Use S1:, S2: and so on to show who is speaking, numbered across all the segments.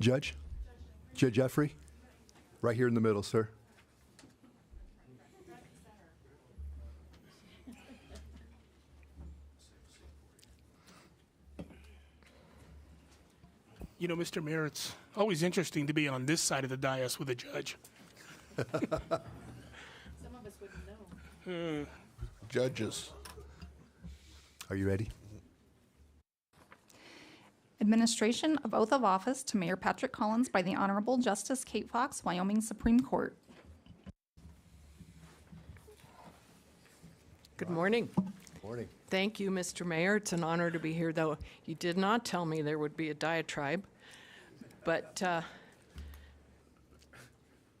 S1: Judge? Judge Jeffrey? Right here in the middle, sir.
S2: You know, Mr. Mayor, it's always interesting to be on this side of the dais with a judge.
S3: Some of us wouldn't know.
S4: Judges.
S1: Are you ready?
S5: Administration of oath of office to Mayor Patrick Collins by the Honorable Justice Kate Fox, Wyoming Supreme Court.
S6: Good morning.
S1: Morning.
S6: Thank you, Mr. Mayor. It's an honor to be here, though you did not tell me there would be a diatribe. But uh,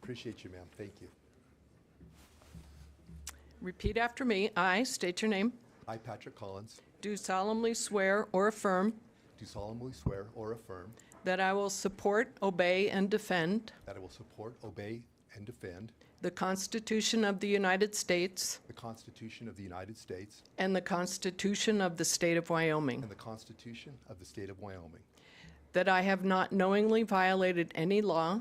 S1: Appreciate you, ma'am. Thank you.
S6: repeat after me. I state your name.
S1: I, Patrick Collins,
S6: Do solemnly swear or affirm
S1: do solemnly swear or affirm
S6: that I will support, obey, and defend
S1: that I will support, obey, and defend
S6: the Constitution of the United States
S1: the Constitution of the United States
S6: and the Constitution of the State of
S1: and
S6: Wyoming,
S1: the Constitution of the State of Wyoming,
S6: that I have not knowingly violated any law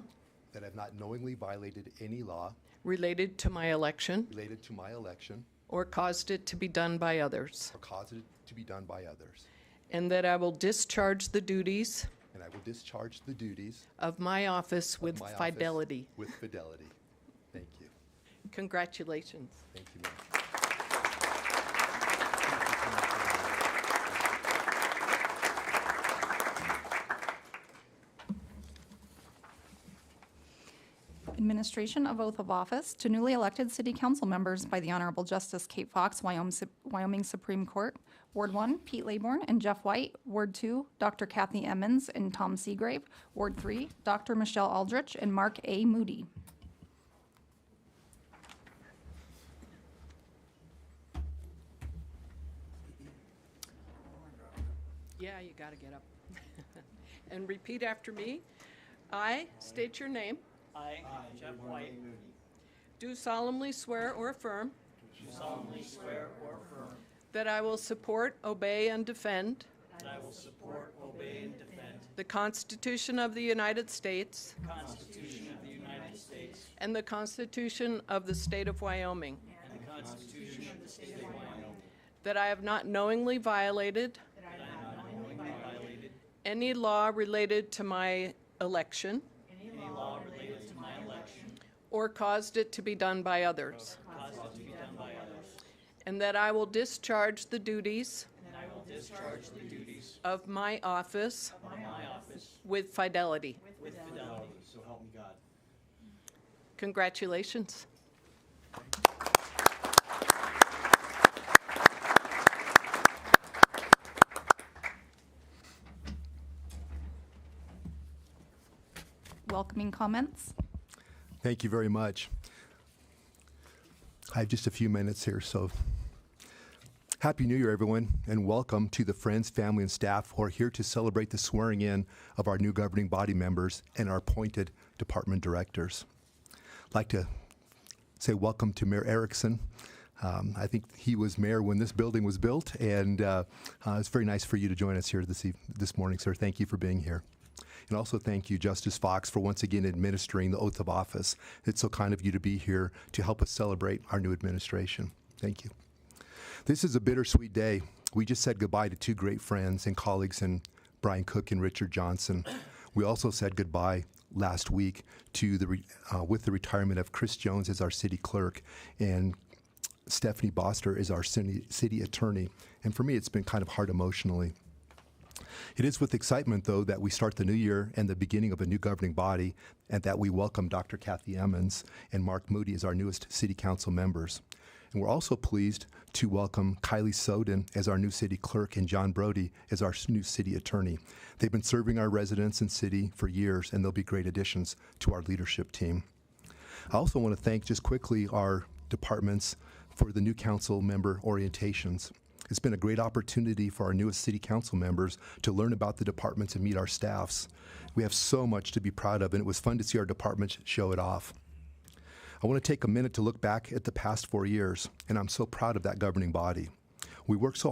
S1: that I have not knowingly violated any law
S6: related to my election
S1: related to my election
S6: or caused it to be done by others,
S1: or caused it to be done by others,
S6: and that I will discharge the duties
S1: and I will discharge the duties
S6: of my office with
S1: of my office
S6: fidelity.
S1: with fidelity. Thank you.
S6: Congratulations.
S1: Thank you, ma'am.
S5: Administration of oath of office to newly elected city council members by the Honorable Justice Kate Fox, Wyom- Wyoming Supreme Court. Ward 1, Pete Laborn and Jeff White. Ward 2, Dr. Kathy Emmons and Tom Seagrave. Ward 3, Dr. Michelle Aldrich and Mark A. Moody.
S6: Yeah, you got to get up. And repeat after me. I state your name.
S7: I, Jeff White,
S6: Do solemnly swear or affirm
S7: do solemnly swear or affirm
S6: that I will support, obey, and defend
S7: that I will support, obey, and defend
S6: the Constitution of the United States
S7: the Constitution of the United States
S6: and the Constitution of the State of Wyoming,
S7: and the Constitution of the State of Wyoming,
S6: that I have not knowingly violated
S7: that I have not knowingly violated
S6: any law related to my election
S7: any law related to my election,
S6: or caused it to be done by others,
S7: caused it to be done by others,
S6: and that I will discharge the duties
S7: and I will discharge the duties
S6: of my office
S7: of my office
S6: with fidelity.
S7: with fidelity, so help me God.
S6: Congratulations.
S5: Welcoming comments?
S1: Thank you very much. I have just a few minutes here, so Happy New Year, everyone, and welcome to the friends, family, and staff who are here to celebrate the swearing in of our new governing body members and our appointed department directors. I'd like to say welcome to Mayor Erickson. Um, I think he was mayor when this building was built, and uh, uh, it's very nice for you to join us here this, eve- this morning, sir. Thank you for being here. And also thank you, Justice Fox, for once again administering the oath of office. It's so kind of you to be here to help us celebrate our new administration. Thank you. This is a bittersweet day. We just said goodbye to two great friends and colleagues in Brian Cook and Richard Johnson. We also said goodbye last week to the re- uh, with the retirement of Chris Jones as our city clerk and Stephanie Boster is our city, city attorney. And for me, it's been kind of hard emotionally. It is with excitement, though, that we start the new year and the beginning of a new governing body, and that we welcome Dr. Kathy Emmons and Mark Moody as our newest city council members. And we're also pleased to welcome Kylie Soden as our new city clerk and John Brody as our s- new city attorney. They've been serving our residents and city for years, and they'll be great additions to our leadership team. I also want to thank just quickly our departments for the new council member orientations. It's been a great opportunity for our newest city council members to learn about the departments and meet our staffs. We have so much to be proud of, and it was fun to see our departments show it off. I want to take a minute to look back at the past four years, and I'm so proud of that governing body. We worked so